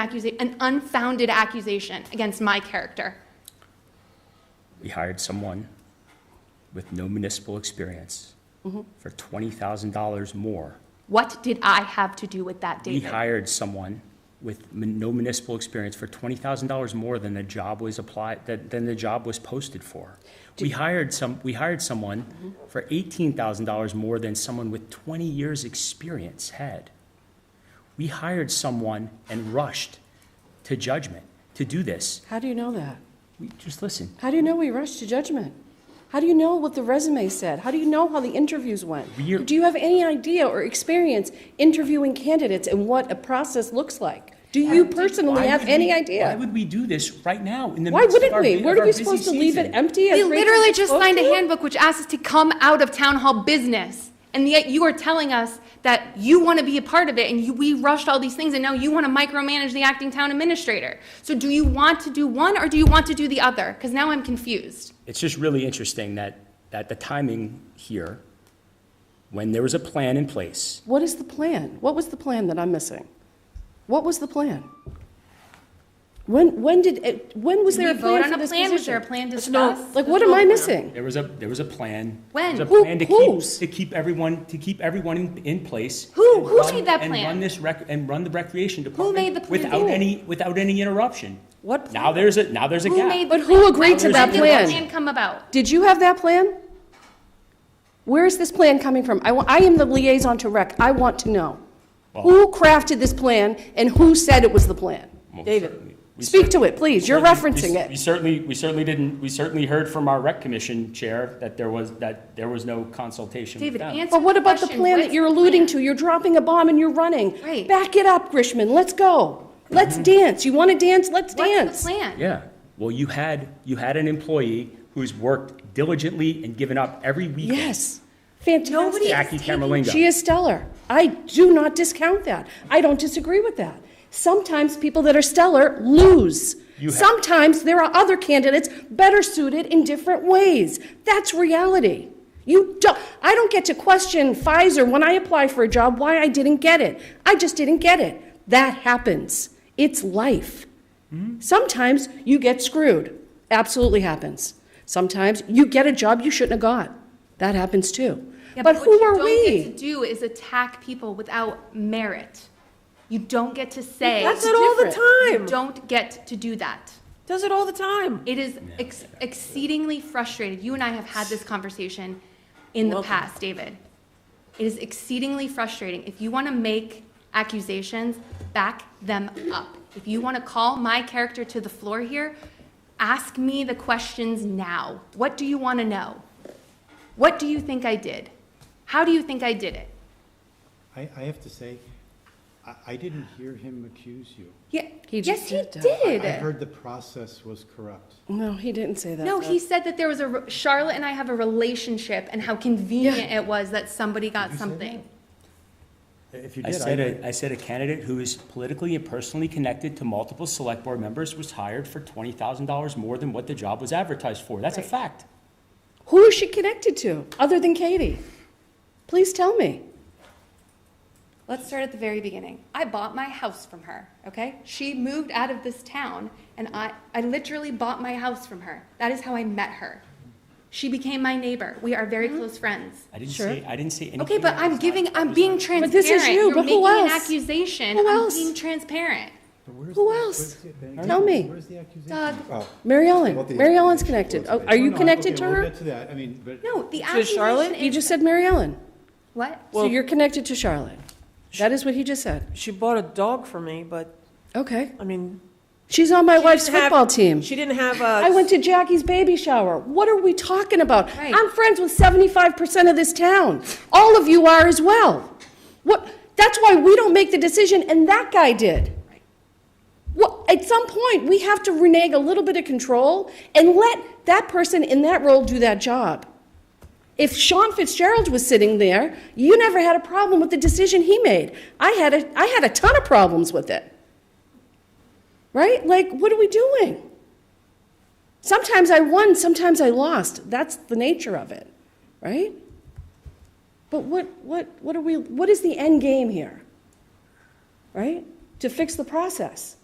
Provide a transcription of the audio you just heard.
accusa- an unfounded accusation against my character. We hired someone with no municipal experience for $20,000 more. What did I have to do with that, We David? hired someone with mun- no municipal experience for $20,000 more than the job was applied, than than the job was posted for. We hired some, we hired someone for $18,000 more than someone with 20 years' experience had. We hired someone and rushed to judgment to do this. How do you know that? We- Just listen. How do you know we rushed to judgment? How do you know what the resume said? How do you know how the interviews went? We're- Do you have any idea or experience interviewing candidates and what a process looks like? Do you personally Why have would any we- Why idea? would we do this right now in the Why midst of wouldn't our, we? bu- Were of our we busy supposed to leave it season? empty? as We Rachel literally was just supposed signed a to? handbook which asks us to come out of town hall business. And yet you are telling us that you want to be a part of it and you, we rushed all these things and now you want to micromanage the acting town administrator. So do you want to do one or do you want to do the other? Because now I'm confused. It's just really interesting that, that the timing here, when there was a plan in place, What is the plan? What was the plan that I'm missing? What was the plan? When, when did, it- when was Did there a we plan vote on for a this plan? position? Was there a plan Let's not- discussed? Like, what am I missing? there was a, there was a plan. When? There was Who- a plan to keep, whose? to keep everyone, to keep everyone in- in place. Who- and who run- made that And plan? run this rec, and run the recreation department. made the plan? Without Who? any, without any interruption. What plan? Now there's a, now there's a Who made gap. the But who plan? agreed to When that did the plan? come about? Did you have that plan? Where is this plan coming from? I, wa- I am the liaison to rec. I want to know. Who crafted this plan and who said it was the plan? Well, certainly- David, we speak to it, please. You're certainly- we- referencing We it. certainly, we certainly didn't, we certainly heard from our rec commission chair that there was, that there was no consultation with David, them. answer But what about the question. plan that What's you're the alluding plan? to? You're dropping a bomb and you're running. Right. Back it up, Grishman. Let's go. Let's dance. You want to dance? Let's What's dance. the plan? Yeah, well, you had, you had an employee who's worked diligently and given up every weekend. Yes. Fantastic. Jackie Camerlingo. She is stellar. I do not discount that. I don't disagree with that. Sometimes people that are stellar lose. You have- Sometimes there are other candidates better suited in different ways. That's reality. You don't, I don't get to question Pfizer when I apply for a job why I didn't get it. I just didn't get it. That happens. It's life. Sometimes you get screwed. Absolutely happens. Sometimes you get a job you shouldn't have got. That happens too. Yeah, but who are What you don't get we? to do is attack people without merit. You don't get to say. That's it all the You time. don't get to do that. Does it all the time. It is ex- exceedingly frustrating. You and I have had this conversation in the past, David. It is exceedingly frustrating. If you want to make accusations, back them up. If you want to call my character to the floor here, ask me the questions now. What do you want to know? What do you think I did? How do you think I did it? I, I have to say, I, I didn't hear him accuse you. Yeah, He yes, just he did that. I I did. heard the process was corrupt. No, he didn't say that. No, though. he said that there was a re- Charlotte and I have a relationship, and how convenient it was that somebody got something. If you I did, said, I, a, I said a candidate who is politically and personally connected to multiple select board members was hired for twenty thousand dollars more than what the job was advertised for. That's a fact. Who is she connected to other than Katie? Please tell me. Let's start at the very beginning. I bought my house from her. Okay, she moved out of this town, and I I literally bought my house from her. That is how I met her. She became my neighbor. We are Mm-hmm. very close friends. I didn't Sure. say, I didn't say anything. Okay, but that I'm was not- giving. I'm was being not- transparent. this is you, You're but who making an else? accusation. Who I'm else? being transparent. but where's Who the- else? where's the- then Tell again, me. Where's the accusation? Doug. Oh. Mary Ellen. What the Mary Ellen's accusation connected. was Oh, made. Are you No, no, connected to okay, We'll her? get to that, I mean, but. No, the To accusation. Charlotte? You is- just said Mary Ellen. what? So you're connected to Charlotte. That is what he just said. She bought a dog for me, but, Okay. I mean. She's on my she wife's didn't have- football team. She didn't have a. I went to Jackie's baby shower. What are we talking about? Right. I'm friends with 75% of this town. All of you are as well. What, that's why we don't make the decision, and that guy did. Well, at some point, we have to renege a little bit of control and let that person in that role do that job. If Sean Fitzgerald was sitting there, you never had a problem with the decision he made. I had a, I had a ton of problems with it. Right? Like, what are we doing? Sometimes I won, sometimes I lost. That's the nature of it, right? But what, what, what are we, what is the end game here? Right? To fix the process.